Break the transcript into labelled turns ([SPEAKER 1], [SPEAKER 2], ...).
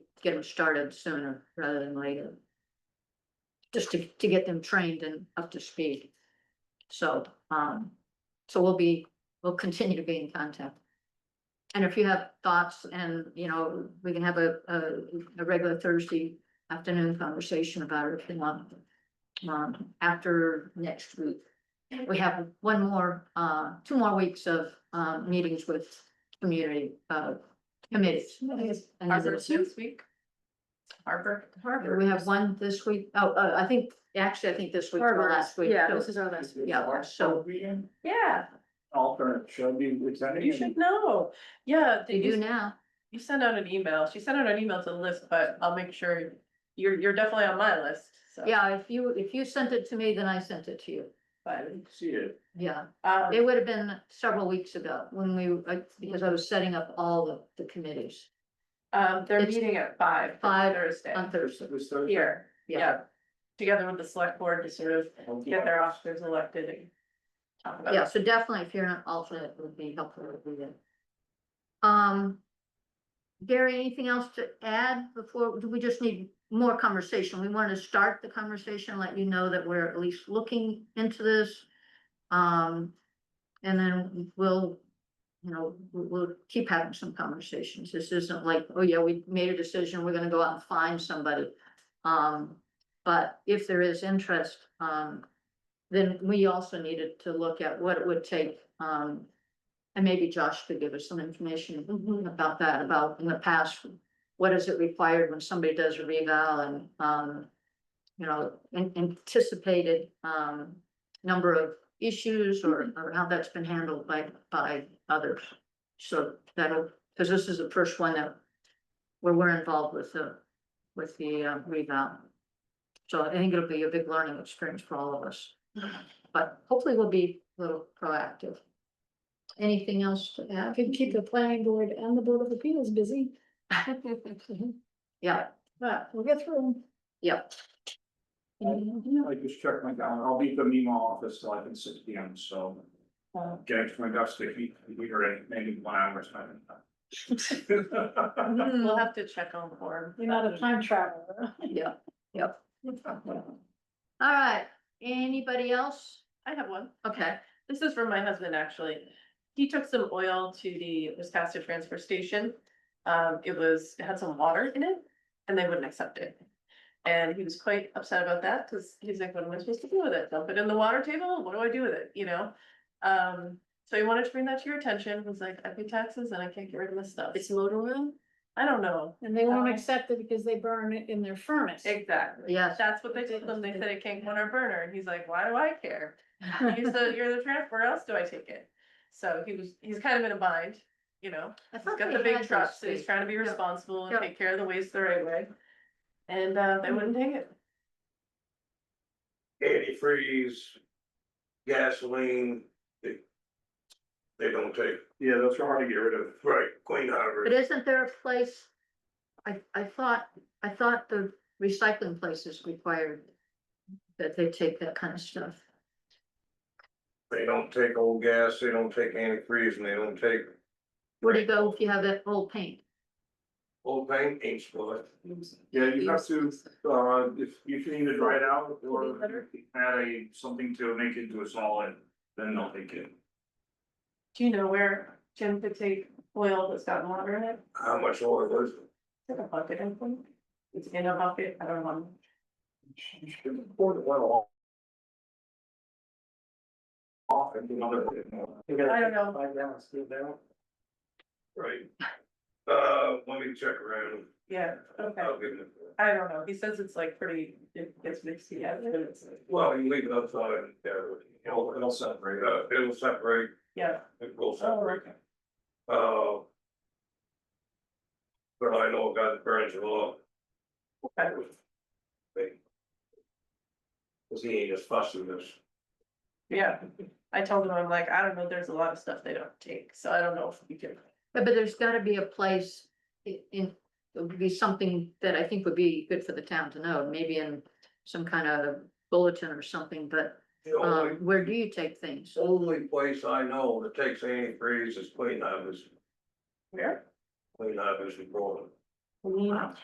[SPEAKER 1] get them started sooner rather than later. Just to, to get them trained and up to speed. So, um, so we'll be, we'll continue to be in contact. And if you have thoughts and, you know, we can have a, a, a regular Thursday afternoon conversation about it if you want. Um, after next week. We have one more, uh, two more weeks of, uh, meetings with community, uh, committees. And
[SPEAKER 2] Harbor
[SPEAKER 1] there's two-
[SPEAKER 2] this week. Harbor, Harbor.
[SPEAKER 1] We have one this week, oh, uh, I think, actually, I think this week or last week.
[SPEAKER 2] Yeah,
[SPEAKER 1] so-
[SPEAKER 2] this is our last week.
[SPEAKER 1] Yeah, so
[SPEAKER 3] Reading,
[SPEAKER 2] Yeah,
[SPEAKER 3] alternate, should be, it's that
[SPEAKER 2] you should know. Yeah,
[SPEAKER 1] we
[SPEAKER 2] you
[SPEAKER 1] do now.
[SPEAKER 2] You sent out an email. She sent out an email to the list, but I'll make sure you're, you're definitely on my list, so.
[SPEAKER 1] Yeah, if you, if you sent it to me, then I sent it to you.
[SPEAKER 3] I
[SPEAKER 2] But,
[SPEAKER 3] didn't see it.
[SPEAKER 1] Yeah,
[SPEAKER 2] um,
[SPEAKER 1] it would have been several weeks ago when we, I- because I was setting up all of the committees
[SPEAKER 2] um, they're
[SPEAKER 1] it's-
[SPEAKER 2] meeting at five.
[SPEAKER 1] Five
[SPEAKER 2] Thursday
[SPEAKER 1] on Thursday.
[SPEAKER 3] It was Thursday.
[SPEAKER 2] here.
[SPEAKER 1] Yeah.
[SPEAKER 2] Yeah. Together with the select board to sort of get their officers elected and talk about.
[SPEAKER 1] Yeah,
[SPEAKER 2] it.
[SPEAKER 1] so definitely if you're an alternate, it would be helpful to do that. Um, Gary, anything else to add before, do we just need more conversation? We want to start the conversation, let you know that we're at least looking into this. Um, and then we'll, you know, we- we'll keep having some conversations. This isn't like, oh yeah, we made a decision, we're gonna go out and find somebody. Um, but if there is interest, um, then we also needed to look at what it would take, um. And maybe Josh could give us some information about that, about in the past, what is it required when somebody does a reval and, um. You know, an anticipated, um, number of issues or, or how that's been handled by, by others. So that'll, because this is the first one that, where we're involved with the, with the uh, reval. So I think it'll be a big learning experience for all of us but hopefully we'll be a little proactive. Anything else to add?
[SPEAKER 4] Could keep the planning board and the board of appeals busy,
[SPEAKER 1] Yeah,
[SPEAKER 4] but we'll get through.
[SPEAKER 1] yeah,
[SPEAKER 4] them.
[SPEAKER 3] I just checked my calendar, I'll be at the Memo office till like at six P M, so.
[SPEAKER 2] Wow.
[SPEAKER 3] Getting to my desk, if you, if you were in, maybe one hour, time.
[SPEAKER 2] We'll have to check on form. Um,
[SPEAKER 4] You're not a time traveler.
[SPEAKER 1] yeah, yeah. All right, anybody else?
[SPEAKER 2] I have one.
[SPEAKER 1] Okay,
[SPEAKER 2] This is from my husband, actually. He took some oil to the Wisconsin transfer station. Um, it was, it had some water in it and they wouldn't accept it. And he was quite upset about that because he's like, what am I supposed to do with it? Dump it in the water table? What do I do with it? You know? Um, so he wanted to bring that to your attention. Was like, I pay taxes and I can't get rid of this stuff. It's motor oil? I don't know.
[SPEAKER 4] And they won't
[SPEAKER 2] Okay.
[SPEAKER 4] accept it because they burn it in their furnace.
[SPEAKER 2] Exactly.
[SPEAKER 1] yes,
[SPEAKER 2] That's what they told him. They said it can't go on our burner. And he's like, why do I care? You're the, you're the transfer, where else do I take it? So he was, he's kind of in a bind, you know,
[SPEAKER 1] I
[SPEAKER 2] he's
[SPEAKER 1] thought
[SPEAKER 2] got
[SPEAKER 1] they
[SPEAKER 2] the
[SPEAKER 1] had
[SPEAKER 2] big
[SPEAKER 1] those
[SPEAKER 2] truck, so he's
[SPEAKER 1] things.
[SPEAKER 2] trying to be
[SPEAKER 1] Yeah.
[SPEAKER 2] responsible and
[SPEAKER 1] Yeah.
[SPEAKER 2] take care of the waste the right way. And uh, they wouldn't take it.
[SPEAKER 5] antifreeze, gasoline, they, they don't take,
[SPEAKER 3] Yeah, those are hard to get rid of.
[SPEAKER 5] right, Queen
[SPEAKER 1] But
[SPEAKER 5] Harbor,
[SPEAKER 1] isn't there a place? I, I thought, I thought the recycling places required that they take that kind of stuff.
[SPEAKER 5] they don't take old gas, they don't take antifreeze, and they don't take
[SPEAKER 1] Where do you go if you have that old paint?
[SPEAKER 5] old paint, ain't spoiled.
[SPEAKER 3] Yeah, you have to, uh, if you can either dry it out or
[SPEAKER 2] Better.
[SPEAKER 3] add a, something to make it into a solid, then they'll take it.
[SPEAKER 2] Do you know where Jim could take oil that's got water in it?
[SPEAKER 5] How much oil is it?
[SPEAKER 2] It's in a bucket, I think. It's in a bucket, I don't know.
[SPEAKER 3] You should report it well. Off and another.
[SPEAKER 2] I don't know.
[SPEAKER 3] Five gallons, still down.
[SPEAKER 5] Right. Uh, let me check around.
[SPEAKER 2] Yeah, okay.
[SPEAKER 5] I'll give it-
[SPEAKER 2] I don't know. He says it's like pretty, it gets mixed together. but it's-
[SPEAKER 5] Well, you leave it outside, uh,
[SPEAKER 3] It'll, it'll separate.
[SPEAKER 5] uh, it'll separate,
[SPEAKER 2] Yeah,
[SPEAKER 5] it will
[SPEAKER 2] Oh.
[SPEAKER 5] separate, uh. But I know a guy that burns it all.
[SPEAKER 2] okay.
[SPEAKER 5] Cause he ain't as fussed with this.
[SPEAKER 2] Yeah, I told him, I'm like, I don't know, there's a lot of stuff they don't take, so I don't know if we can.
[SPEAKER 1] Yeah, But there's gotta be a place i- in, it would be something that I think would be good for the town to know, maybe in some kind of bulletin or something, but
[SPEAKER 5] The only,
[SPEAKER 1] um, where do you take things?
[SPEAKER 5] only place I know that takes antifreeze is Queen Harbors,
[SPEAKER 2] Where?
[SPEAKER 5] Queen Harbors in Brooklyn.
[SPEAKER 2] Wow.